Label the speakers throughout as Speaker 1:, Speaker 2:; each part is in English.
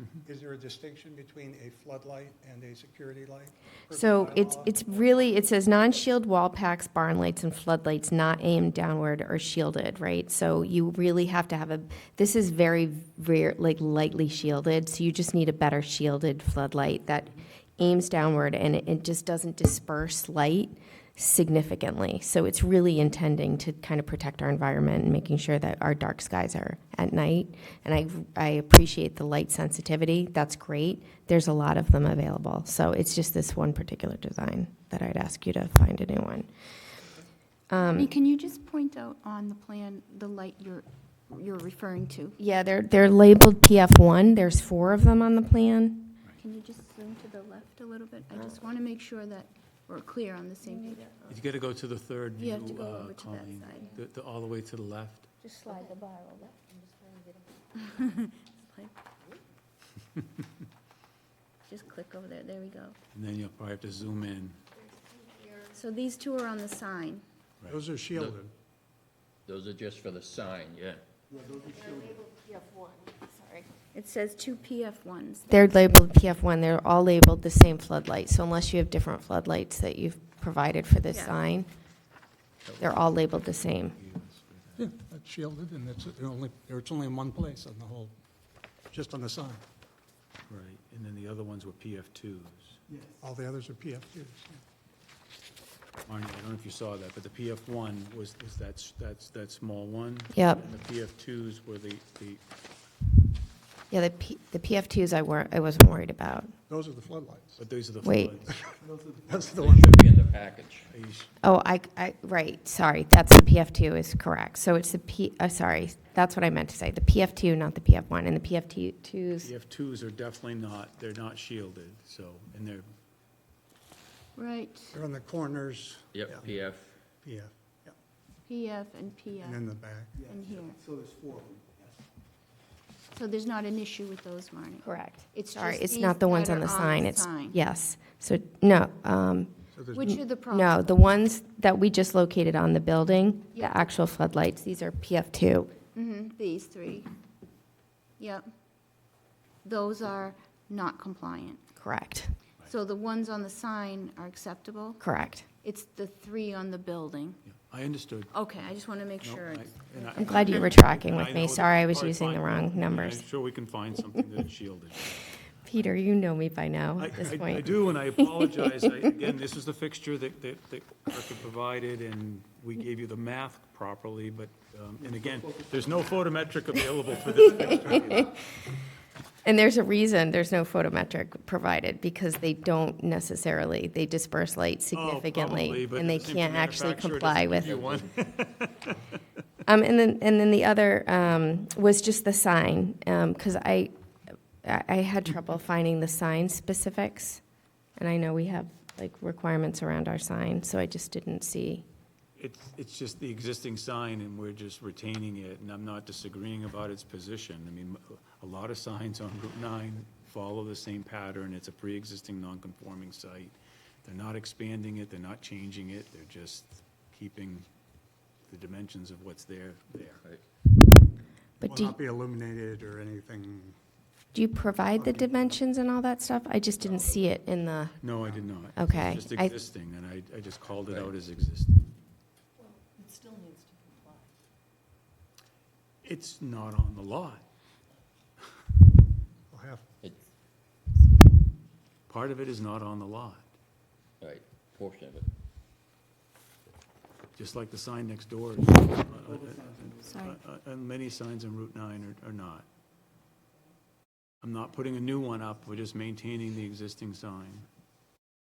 Speaker 1: Mm-hmm.
Speaker 2: is there a distinction between a floodlight and a security light? per the
Speaker 3: So it's,
Speaker 2: bylaw?
Speaker 3: it's really, it says non-shield wall packs, barn lights, and floodlights not aimed downward or shielded, right? So you really have to have a, this is very rare, like lightly shielded, so you just need a better shielded floodlight that aims downward and it, it just doesn't disperse light significantly. So it's really intending to kind of protect our environment and making sure that our dark skies are at night. And I, I appreciate the light sensitivity, that's great. There's a lot of them available. So it's just this one particular design that I'd ask you to find a new one.
Speaker 4: Lee, Can you just point out on the plan the light you're, you're referring to?
Speaker 3: Yeah, they're, they're labeled PF1, there's four of them on the plan.
Speaker 4: Can you just zoom to the left a little bit? I just want to make sure that we're clear on the same page.
Speaker 5: You gotta go to the third
Speaker 4: You have to
Speaker 5: new,
Speaker 4: go
Speaker 5: uh,
Speaker 4: over to that
Speaker 5: Colleen.
Speaker 4: side.
Speaker 5: The- the- all the way to the left.
Speaker 6: Just slide the bar over.
Speaker 4: Just click over there, there we go.
Speaker 5: And then you'll probably have to zoom in.
Speaker 4: So these two are on the sign.
Speaker 1: Those are shielded.
Speaker 7: Those are just for the sign, yeah.
Speaker 4: It says two PF ones.
Speaker 3: They're labeled PF1, they're all labeled the same floodlight. So unless you have different floodlights that you've provided for this
Speaker 4: Yeah.
Speaker 3: sign, they're all labeled the same.
Speaker 1: Yeah, that's shielded, and it's they're only, they're- it's only in one place on the whole, just on the sign.
Speaker 5: Right, and then the other ones were PF2s.
Speaker 1: All the others are PFQs. yeah.
Speaker 5: Marnie, I don't know if you saw that, but the PF1 was, was that, s- that's, that small one.
Speaker 3: Yep.
Speaker 5: And the PF2s were the, the,
Speaker 3: Yeah, the P, the PF2s I weren't, I wasn't worried about.
Speaker 1: Those are the floodlights.
Speaker 5: but these are the.
Speaker 3: Wait.
Speaker 5: floodlights.
Speaker 1: That's the
Speaker 7: They
Speaker 1: one.
Speaker 7: should be in the package.
Speaker 5: Are you sh-
Speaker 3: Oh, I, I, right, sorry, that's the PF2 is correct. So it's the P, uh, sorry, that's what I meant to say, the PF2, not the PF1, and the PF2s,
Speaker 5: PF2s are definitely not, they're not shielded, so, and they're,
Speaker 4: Right,
Speaker 1: They're on the corners.
Speaker 7: Yep,
Speaker 1: Yeah,
Speaker 7: PF,
Speaker 1: PF, yeah,
Speaker 4: PF and
Speaker 1: and in
Speaker 4: PF
Speaker 1: the back.
Speaker 4: in here.
Speaker 1: So there's four of them.
Speaker 4: So there's not an issue with those, Marnie?
Speaker 3: correct.
Speaker 4: It's
Speaker 3: Sorry,
Speaker 4: just
Speaker 3: it's
Speaker 4: these
Speaker 3: not the ones
Speaker 4: that
Speaker 3: on the
Speaker 4: are
Speaker 3: sign, it's,
Speaker 4: sign.
Speaker 3: yes. So, no, um,
Speaker 1: So there's
Speaker 4: Which are the problems?
Speaker 3: no, the ones that we just located on the building,
Speaker 4: Yeah.
Speaker 3: the actual floodlights, these are PF2.
Speaker 4: hmm these three. Yep. Those are not compliant.
Speaker 3: Correct,
Speaker 4: So the ones on the sign are acceptable?
Speaker 3: correct.
Speaker 4: It's the three on the building.
Speaker 5: yeah, I understood.
Speaker 4: Okay, I just want to make
Speaker 5: No,
Speaker 4: sure.
Speaker 5: I- and I-
Speaker 3: I'm glad you were tracking
Speaker 5: and
Speaker 3: with
Speaker 5: I
Speaker 3: me,
Speaker 5: know that
Speaker 3: sorry, I
Speaker 5: we'll
Speaker 3: was
Speaker 5: probably
Speaker 3: using the
Speaker 5: find-
Speaker 3: wrong numbers.
Speaker 5: I'm sure we can find something that's shielded.
Speaker 3: Peter, you know me by now
Speaker 5: I-
Speaker 3: at this
Speaker 5: I-
Speaker 3: point.
Speaker 5: I do, and I apologize. I- Again, this is the fixture that, that, that Arthur provided, and we gave you the math properly, but, um, and again, there's no photometric available for this fixture. either.
Speaker 3: And there's a reason there's no photometric provided, because they don't necessarily, they disperse light
Speaker 5: Oh, probably,
Speaker 3: significantly,
Speaker 5: but
Speaker 3: and they
Speaker 5: the same
Speaker 3: can't actually
Speaker 5: manufacturer doesn't
Speaker 3: comply
Speaker 5: give
Speaker 3: with.
Speaker 5: you one.
Speaker 3: Um, and then, and then the other, um, was just the sign, um, cause I, I I had trouble finding the sign specifics. And I know we have like requirements around our sign, so I just didn't see.
Speaker 5: It's, it's just the existing sign, and we're just retaining it, and I'm not disagreeing about its position. I mean, a lot of signs on Route 9 follow the same pattern. It's a pre-existing non-conforming site. They're not expanding it, they're not changing it, they're just keeping the dimensions of what's there, there.
Speaker 7: right.
Speaker 3: But
Speaker 1: Will
Speaker 3: do,
Speaker 1: not be illuminated or anything.
Speaker 3: do you provide the dimensions and all that stuff? I just didn't see it in the,
Speaker 5: No, I did not.
Speaker 3: Okay.
Speaker 5: It's just
Speaker 3: I-
Speaker 5: existing, and I, I just called it
Speaker 7: Right.
Speaker 5: out as existing.
Speaker 6: It still needs to comply.
Speaker 5: It's not on the lot.
Speaker 1: Well, half,
Speaker 7: It-
Speaker 5: Part of it is not on the lot,
Speaker 7: Right, portion of it.
Speaker 5: just like the sign next door. is-
Speaker 4: Sorry.
Speaker 5: Uh, uh, And many signs on Route 9 are- are not. I'm not putting a new one up, we're just maintaining the existing sign.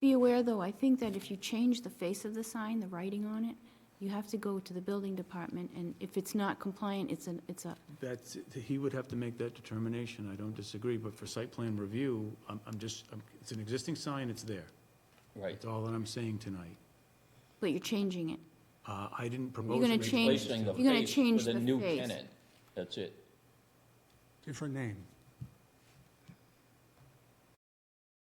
Speaker 4: Be aware, though, I think that if you change the face of the sign, the writing on it, you have to go to the building department, and if it's not compliant, it's an, it's a,
Speaker 5: That's, he would have to make that determination, I don't disagree, but for site plan review, I'm I'm just, I'm- it's an existing sign, it's there.
Speaker 7: Right.
Speaker 5: That's all that I'm saying tonight.
Speaker 4: but you're changing it.
Speaker 5: Uh, I didn't propose.
Speaker 4: You're gonna
Speaker 5: to-
Speaker 4: change-
Speaker 7: Replacing the
Speaker 4: you're gonna
Speaker 7: face
Speaker 4: change
Speaker 7: with a
Speaker 4: the
Speaker 7: new
Speaker 4: face.
Speaker 7: tenant. That's it.
Speaker 1: different name.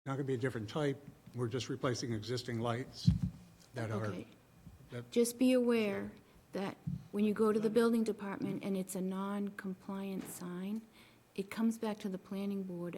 Speaker 1: Not gonna be a different type, we're just replacing existing lights that are,
Speaker 4: Okay.
Speaker 1: that-
Speaker 4: Just be aware that when you go to the building department and it's a non-compliant sign, it comes back to the planning board